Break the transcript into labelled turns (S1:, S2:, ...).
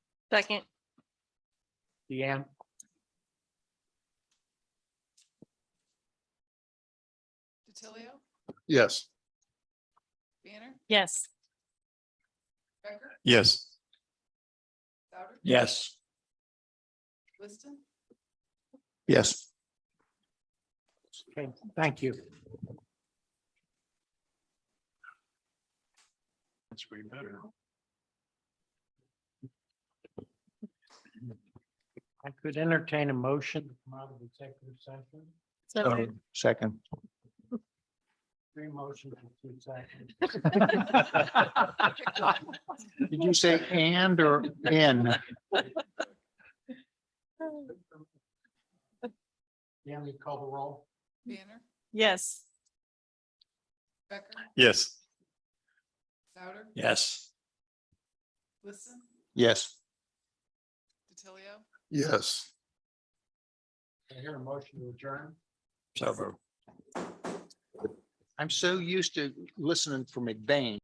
S1: Second.
S2: Deanne?
S3: DiTilio,
S4: Yes.
S3: Banner,
S1: Yes.
S3: Becker,
S4: Yes.
S3: Souter,
S2: Yes.
S3: Liston,
S4: Yes.
S2: Okay, thank you.
S4: That's way better.
S2: I could entertain a motion to come out of executive session.
S1: So moved.
S4: Second.
S2: Three motions in two seconds.
S4: Did you say and or in?
S2: Um, Deanne, you call the roll?
S3: Banner,
S1: Yes.
S3: Becker,
S4: Yes.
S3: Souter,
S4: Yes.
S3: Liston,
S4: Yes.
S3: DiTilio,
S4: Yes.
S2: I hear a motion to adjourn.
S4: So. I'm so used to listening from McBain.